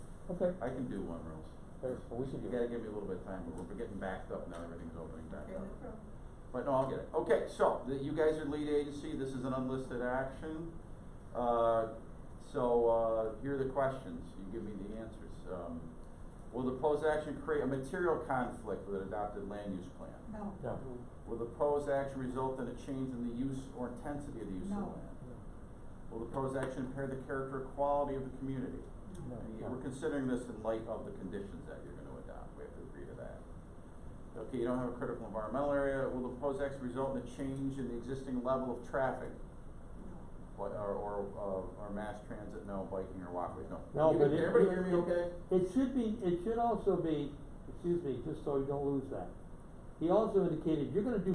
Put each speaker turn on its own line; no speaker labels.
Okay.
I can do one, Rose.
Hey, well, we should do
You gotta
it.
give me a little bit of time, but we're getting backed up now, everything's opening back
Okay,
up.
no problem.
But no, I'll get it. Okay, so, the- you guys are lead agency, this is an unlisted action. Uh, so, uh, here are the questions, you give me the answers. Um, will the proposed action create a material conflict with an adopted land use plan?
No.
No.
Will the proposed action result in a change in the use or intensity of the use of
No.
land? Will the proposed action impair the character or quality of the community?
No.
And you- We're considering this in light of the conditions that you're gonna adopt, we have to agree to that. Okay, you don't have a critical environmental area, will the proposed action result in a change in the existing level of traffic? What, or, or, uh, or mass transit, no, biking or walkways, no?
No,
You-
but it.
Everybody
it-
hear me
it-
okay?
It should be, it should also be, excuse me, just so you don't lose that. He also indicated, you're gonna do